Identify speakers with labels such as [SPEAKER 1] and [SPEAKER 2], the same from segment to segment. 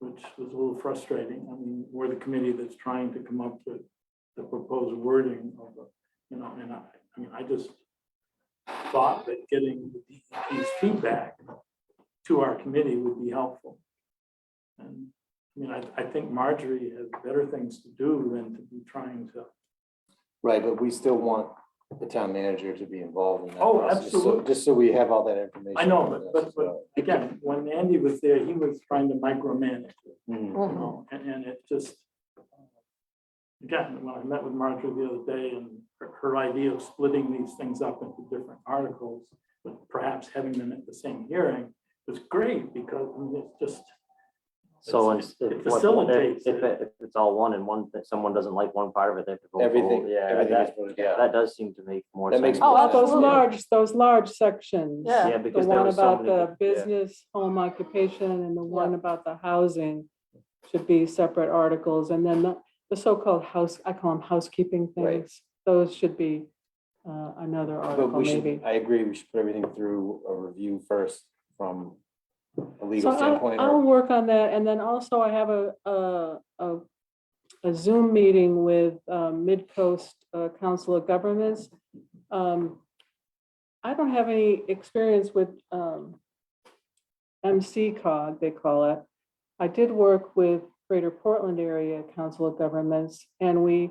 [SPEAKER 1] which was a little frustrating. I mean, we're the committee that's trying to come up with the proposed wording of the, you know, and I, I mean, I just thought that getting the DEP's feedback to our committee would be helpful. And, I mean, I, I think Marjorie has better things to do than to be trying to
[SPEAKER 2] Right, but we still want the town manager to be involved in that.
[SPEAKER 1] Oh,
[SPEAKER 2] process, so-
[SPEAKER 1] absolutely.
[SPEAKER 2] Just so we have all that information.
[SPEAKER 1] I know, but- but- but-
[SPEAKER 2] So,
[SPEAKER 1] again, when Andy was there, he was trying to micromanage, it,
[SPEAKER 2] mm,
[SPEAKER 1] you know, and, and it just. uh, Again, when I met with Marjorie the other day and her, her idea of splitting these things up into different articles, but perhaps having them at the same hearing was great because I mean, it's just,
[SPEAKER 3] So
[SPEAKER 1] It's-
[SPEAKER 3] it's.
[SPEAKER 1] it facilitates
[SPEAKER 3] If,
[SPEAKER 1] it.
[SPEAKER 3] it- if it's all one and one, that someone doesn't like one part of it, they have to vote. for it.
[SPEAKER 2] Everything,
[SPEAKER 3] Yeah,
[SPEAKER 2] everything is
[SPEAKER 3] that,
[SPEAKER 2] voted down.
[SPEAKER 3] that does seem to make more
[SPEAKER 2] That makes
[SPEAKER 3] sense.
[SPEAKER 2] more
[SPEAKER 4] Oh,
[SPEAKER 2] sense.
[SPEAKER 4] those
[SPEAKER 2] Absolutely.
[SPEAKER 4] large, those large sections.
[SPEAKER 5] Yeah.
[SPEAKER 3] Yeah,
[SPEAKER 4] Oh, The
[SPEAKER 3] because there
[SPEAKER 4] one
[SPEAKER 3] was so
[SPEAKER 4] about
[SPEAKER 3] many.
[SPEAKER 4] the
[SPEAKER 3] yeah.
[SPEAKER 4] business, home occupation, and the one
[SPEAKER 5] Yeah.
[SPEAKER 4] about the housing should be separate articles, and then the, the so-called house, I call them housekeeping
[SPEAKER 2] Right.
[SPEAKER 4] things. Those should be uh, another
[SPEAKER 2] But
[SPEAKER 4] article,
[SPEAKER 2] we
[SPEAKER 4] maybe.
[SPEAKER 2] should, I agree, we should put everything through a review first from a
[SPEAKER 4] So
[SPEAKER 2] legal
[SPEAKER 4] I'll,
[SPEAKER 2] standpoint.
[SPEAKER 4] I'll
[SPEAKER 2] or-
[SPEAKER 4] work on that, and then also I have a, a, a, a Zoom meeting with uh, Midcoast uh, Council of Governments. Um, I don't have any experience with um, MC cog, they call it. I did work with Greater Portland Area Council of Governments, and we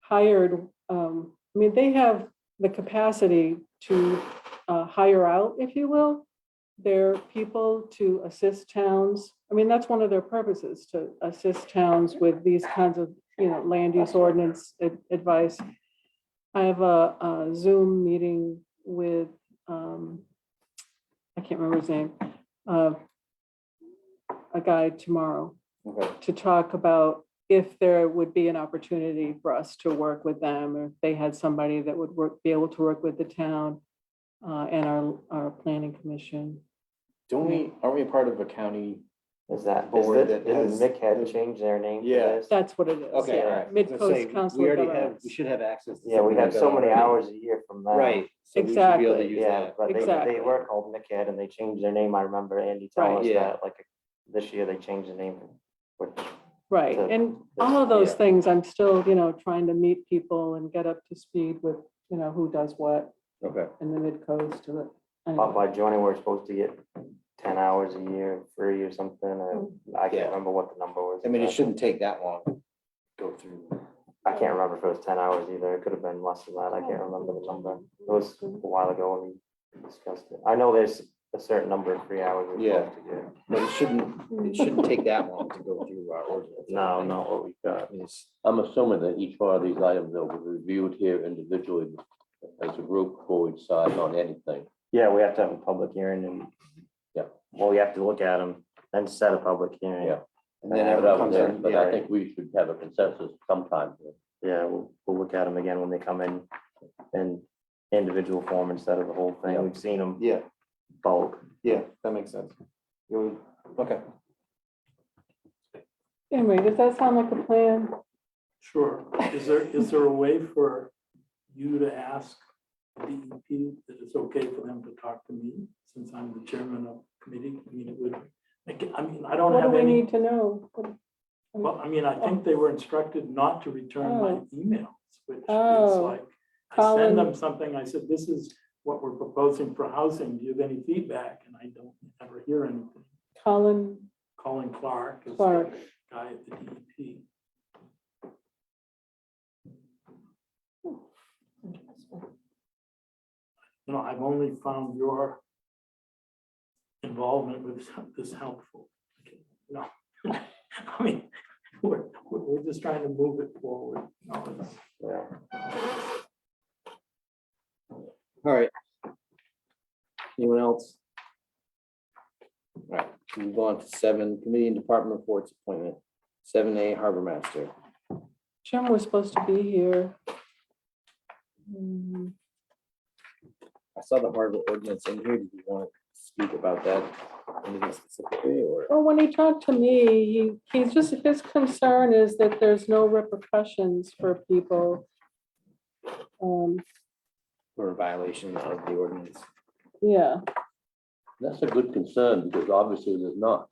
[SPEAKER 4] hired, um, I mean, they have the capacity to uh, hire out, if you will, their people to assist towns. I mean, that's one of their purposes, to assist towns with these kinds of, you know, land use ordinance ad- advice. I have a a Zoom meeting with, um, I can't remember his name, uh, a guy tomorrow
[SPEAKER 2] Okay,
[SPEAKER 4] to talk about if there would be an opportunity for us to work with them, or if they had somebody that would work, be able to work with the town uh, and our, our planning commission.
[SPEAKER 2] Don't we, aren't we a part of a county?
[SPEAKER 3] Is that, is
[SPEAKER 2] board
[SPEAKER 3] that,
[SPEAKER 2] that has
[SPEAKER 3] didn't Mick had
[SPEAKER 2] the-
[SPEAKER 3] changed their name to
[SPEAKER 2] Yeah.
[SPEAKER 3] this?
[SPEAKER 4] That's what it is.
[SPEAKER 2] Okay,
[SPEAKER 4] yeah.
[SPEAKER 2] all right. Let's say,
[SPEAKER 4] Mid-Coast Council uh,
[SPEAKER 2] We
[SPEAKER 4] of
[SPEAKER 2] already have,
[SPEAKER 4] Governments.
[SPEAKER 2] we should have access. to
[SPEAKER 3] Yeah, we
[SPEAKER 2] something
[SPEAKER 3] have
[SPEAKER 2] like
[SPEAKER 3] so
[SPEAKER 2] that
[SPEAKER 3] many
[SPEAKER 2] already.
[SPEAKER 3] hours a year from that.
[SPEAKER 2] Right. so we should be able to
[SPEAKER 4] Exactly.
[SPEAKER 2] use
[SPEAKER 3] Yeah,
[SPEAKER 2] that.
[SPEAKER 3] but they, they
[SPEAKER 4] Exactly.
[SPEAKER 3] were called Mick Head and they changed their name. I remember Andy telling
[SPEAKER 4] Right.
[SPEAKER 3] us
[SPEAKER 2] Yeah.
[SPEAKER 3] that, like, this year they changed the name. Which,
[SPEAKER 4] Right,
[SPEAKER 3] to-
[SPEAKER 4] and all of those
[SPEAKER 3] yeah.
[SPEAKER 4] things, I'm still, you know, trying to meet people and get up to speed with, you know, who does what
[SPEAKER 2] Okay.
[SPEAKER 4] in the mid-coast to it.
[SPEAKER 3] uh, by,
[SPEAKER 4] Anyway,
[SPEAKER 3] by joining, we're supposed to get ten hours a year free or something, or
[SPEAKER 4] Mm.
[SPEAKER 3] I
[SPEAKER 2] Yeah.
[SPEAKER 3] can't remember what the number was.
[SPEAKER 2] I mean, it
[SPEAKER 3] exactly.
[SPEAKER 2] shouldn't take that long. to Go through.
[SPEAKER 3] I can't remember if it was ten hours either. It could have been less than that. I can't remember the number. It was a while ago when we discussed it. I know there's a certain number of free hours. we're
[SPEAKER 2] Yeah.
[SPEAKER 3] supposed to get.
[SPEAKER 2] But it shouldn't, it shouldn't take that long to go through our ordinance.
[SPEAKER 3] No, not what we got.
[SPEAKER 2] It's-
[SPEAKER 6] I'm assuming that each one of these items will be reviewed here individually as a group before we decide on anything.
[SPEAKER 3] Yeah, we have to have a public hearing and.
[SPEAKER 6] Yeah.
[SPEAKER 3] Well, we have to look at them, then set a public hearing.
[SPEAKER 6] Yeah.
[SPEAKER 2] And then
[SPEAKER 3] Have
[SPEAKER 2] have it
[SPEAKER 3] it
[SPEAKER 6] But I
[SPEAKER 3] up
[SPEAKER 2] comes
[SPEAKER 6] would-
[SPEAKER 3] there,
[SPEAKER 2] in,
[SPEAKER 6] But
[SPEAKER 2] yeah,
[SPEAKER 6] I think we should have a consensus sometime.
[SPEAKER 3] Yeah, we'll, we'll look at them again when they come in, in individual form instead of the whole
[SPEAKER 2] Yeah.
[SPEAKER 3] thing. We've seen them
[SPEAKER 2] yeah,
[SPEAKER 3] bulk.
[SPEAKER 2] yeah, that makes sense. You would- Okay,
[SPEAKER 4] Anyway, does that sound like a plan?
[SPEAKER 1] Sure. Is there, is there a way for you to ask DEP that it's okay for them to talk to me since I'm the chairman of committee? I mean, it would, like, I mean, I don't
[SPEAKER 4] What do
[SPEAKER 1] have
[SPEAKER 4] we
[SPEAKER 1] any,
[SPEAKER 4] need to know? What-
[SPEAKER 1] well, I mean, I think they were instructed not to return my
[SPEAKER 4] Oh.
[SPEAKER 1] emails, which is
[SPEAKER 4] Oh.
[SPEAKER 1] like, I
[SPEAKER 4] Colin.
[SPEAKER 1] send them something, I said, this is what we're proposing for housing, do you have any feedback? And I don't ever hear anything.
[SPEAKER 4] Colin
[SPEAKER 1] Colin Clark is the
[SPEAKER 4] Clark,
[SPEAKER 1] guy at the E DEP. you know, I've only found your involvement with some- this helpful. No, I mean, we're, we're we're just trying to move it forward. No, it's-
[SPEAKER 2] all right. Anyone else? All right, move on to seven, committee and department reports appointment, seven A harbor master.
[SPEAKER 4] Jim was supposed to be here. Hmm,
[SPEAKER 2] I saw the harbor ordinance in here. Did you want to speak about that? Anything specifically or?
[SPEAKER 4] Well, oh, when he talked to me, he, he's just, his concern is that there's no repercussions for people. Um,
[SPEAKER 2] Or a violation of the ordinance?
[SPEAKER 4] yeah.
[SPEAKER 6] That's a good concern because obviously there's not.